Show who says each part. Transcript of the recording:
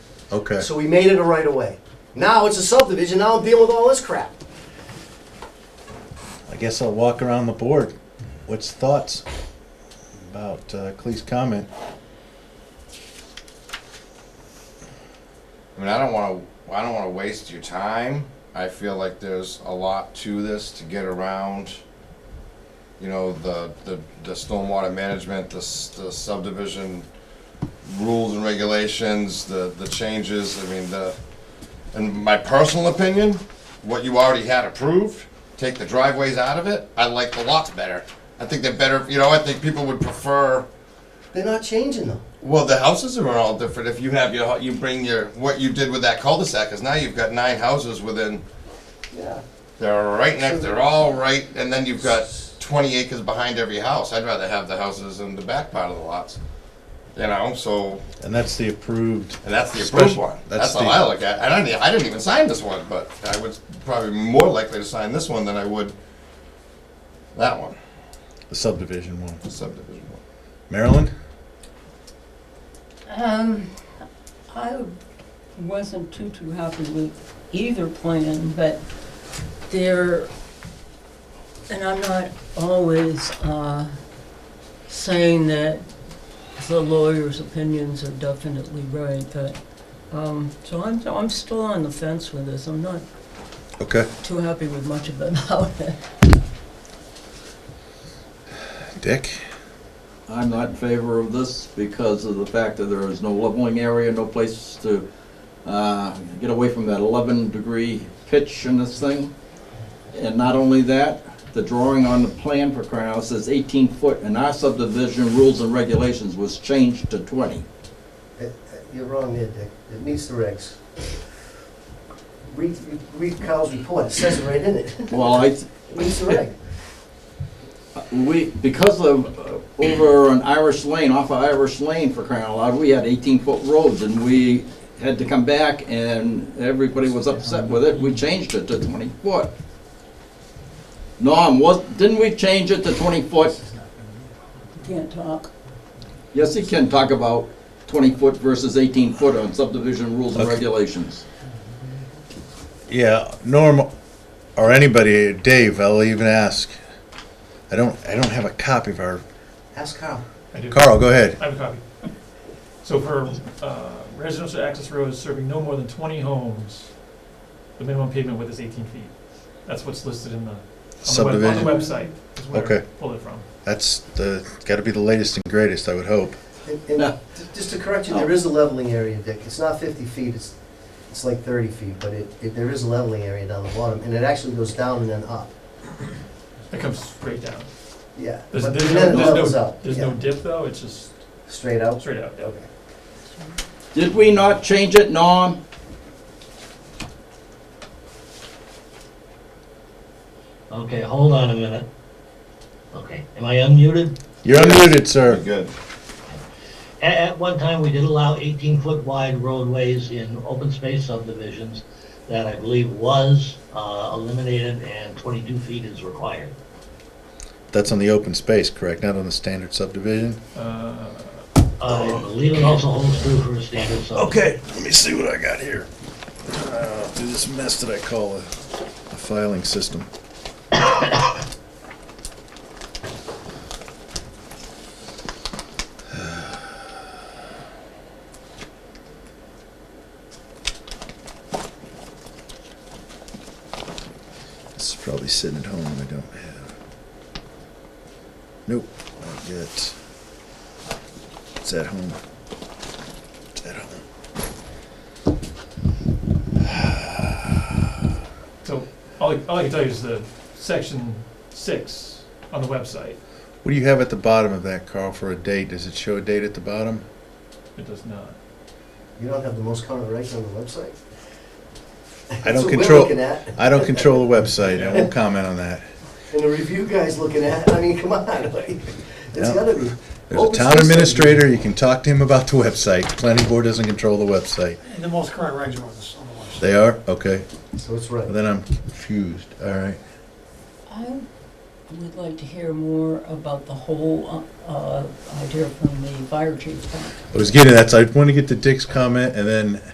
Speaker 1: Okay.
Speaker 2: So we made it a right of way. Now it's a subdivision, now I'm dealing with all this crap.
Speaker 1: I guess I'll walk around the board. What's thoughts about uh, Clee's comment?
Speaker 3: I mean, I don't want to. Oh, I don't want to waste your time. I feel like there's a lot to this to get around. You know, the the, the stormwater management, the, s- the subdivision rules and regulations, the the changes. I mean, the. In my personal opinion, what you already had approved, take the driveways out of it. I like the lots better. I think they're better. You know, I think people would prefer.
Speaker 2: They're not changing them.
Speaker 3: Well, the houses are all different. If you have your, you bring your, what you did with that cul-de-sac, because now you've got nine houses within,
Speaker 2: Yeah.
Speaker 3: they're right next, they're all right, and then you've got twenty acres behind every house. I'd rather have the houses in the back part of the lots. You know, so,
Speaker 1: And that's the approved.
Speaker 3: and that's the approved
Speaker 1: Special-
Speaker 3: one.
Speaker 1: that's
Speaker 3: That's all
Speaker 1: the-
Speaker 3: I look at. And I didn't, I didn't even sign this one, but I was probably more likely to sign this one than I would that one,
Speaker 1: The subdivision one.
Speaker 3: the subdivision one.
Speaker 1: Marilyn?
Speaker 4: Um, I wasn't too, too happy with either plan, but there, and I'm not always, uh, saying that the lawyer's opinions are definitely right, but, um, so I'm, so I'm still on the fence with this. I'm not
Speaker 1: Okay.
Speaker 4: too happy with much of it about it.
Speaker 1: Dick?
Speaker 5: I'm not in favor of this because of the fact that there is no leveling area, no place to uh, get away from that 11-degree pitch in this thing. And not only that, the drawing on the plan for crying out loud says 18 foot, and our subdivision rules and regulations was changed to 20.
Speaker 2: Uh, uh, You're wrong there, Dick. It meets the regs. Read, read Kyle's report, it says it right in it.
Speaker 5: Well, I,
Speaker 2: It meets the reg.
Speaker 5: we, because of, uh, over on Irish Lane, off of Irish Lane for crying out loud, we had 18-foot roads, and we had to come back, and everybody was upset with it, we changed it to 20 foot. Norm, was, didn't we change it to 20 foot?
Speaker 4: Can't talk.
Speaker 5: Yes, he can talk about 20 foot versus 18 foot on subdivision rules and
Speaker 1: Okay.
Speaker 5: regulations.
Speaker 1: Yeah, Norm or anybody, Dave, I'll even ask. I don't I don't have a copy of our
Speaker 2: Ask Kyle.
Speaker 6: I do.
Speaker 1: Carl, go ahead.
Speaker 6: I have a copy. So for uh, residential access roads serving no more than 20 homes, the minimum pavement width is 18 feet. That's what's listed in the, on the web- on
Speaker 1: Subdivision.
Speaker 6: the website, is where I
Speaker 1: Okay.
Speaker 6: pulled it from.
Speaker 1: That's the gotta be the latest and greatest, I would hope.
Speaker 2: And- and
Speaker 5: No.
Speaker 2: j- Just to correct you, there is a leveling area, Dick. It's not 50 feet, it's, it's like 30 feet, but it, it- there is a leveling area down the bottom, and it actually goes down and then up.
Speaker 6: It comes straight down.
Speaker 2: Yeah.
Speaker 6: There's,
Speaker 2: But
Speaker 6: there's
Speaker 2: then it
Speaker 6: no, there's
Speaker 2: levels
Speaker 6: no,
Speaker 2: out,
Speaker 6: there's
Speaker 2: yeah.
Speaker 6: no dip though, it's just
Speaker 2: Straight out?
Speaker 6: straight out, yeah.
Speaker 2: Okay.
Speaker 5: Did we not change it, Norm?
Speaker 7: Okay, hold on a minute. Okay, am I unmuted?
Speaker 1: You're unmuted, sir.
Speaker 3: Good.
Speaker 7: At, at one time, we did allow 18-foot wide roadways in open space subdivisions that I believe was uh, eliminated and 22 feet is required.
Speaker 1: That's on the open space, correct? Not on the standard subdivision?
Speaker 6: Uh,
Speaker 7: Uh, I believe it also holds true for a standard subdivision.
Speaker 1: Okay, let me see what I got here. Uh, do this mess that I call a, a filing system. It's probably sitting at home and I don't have. Nope, not yet. It's at home. It's at home.
Speaker 6: So all I, all I can tell you is the section six on the website,
Speaker 1: What do you have at the bottom of that, Carl, for a date? Does it show a date at the bottom?
Speaker 6: it does not.
Speaker 2: You don't have the most current regs on the website?
Speaker 1: I don't
Speaker 2: That's what we're
Speaker 1: control,
Speaker 2: looking at,
Speaker 1: I don't control the website, I won't comment on that.
Speaker 2: and the review guy's looking at, I mean, come on, like, it's
Speaker 1: Yeah.
Speaker 2: gotta be.
Speaker 1: There's a
Speaker 2: Open
Speaker 1: town
Speaker 2: space
Speaker 1: administrator, you can talk to him about the website, planning board doesn't control the website.
Speaker 8: And the most current regs are on this, on the website.
Speaker 1: They are? Okay,
Speaker 2: So it's right.
Speaker 1: Well, then I'm confused, all right.
Speaker 4: I would like to hear more about the whole, uh, uh, idea from the fire chief.
Speaker 1: I was getting, that's, I want to get to Dick's comment and then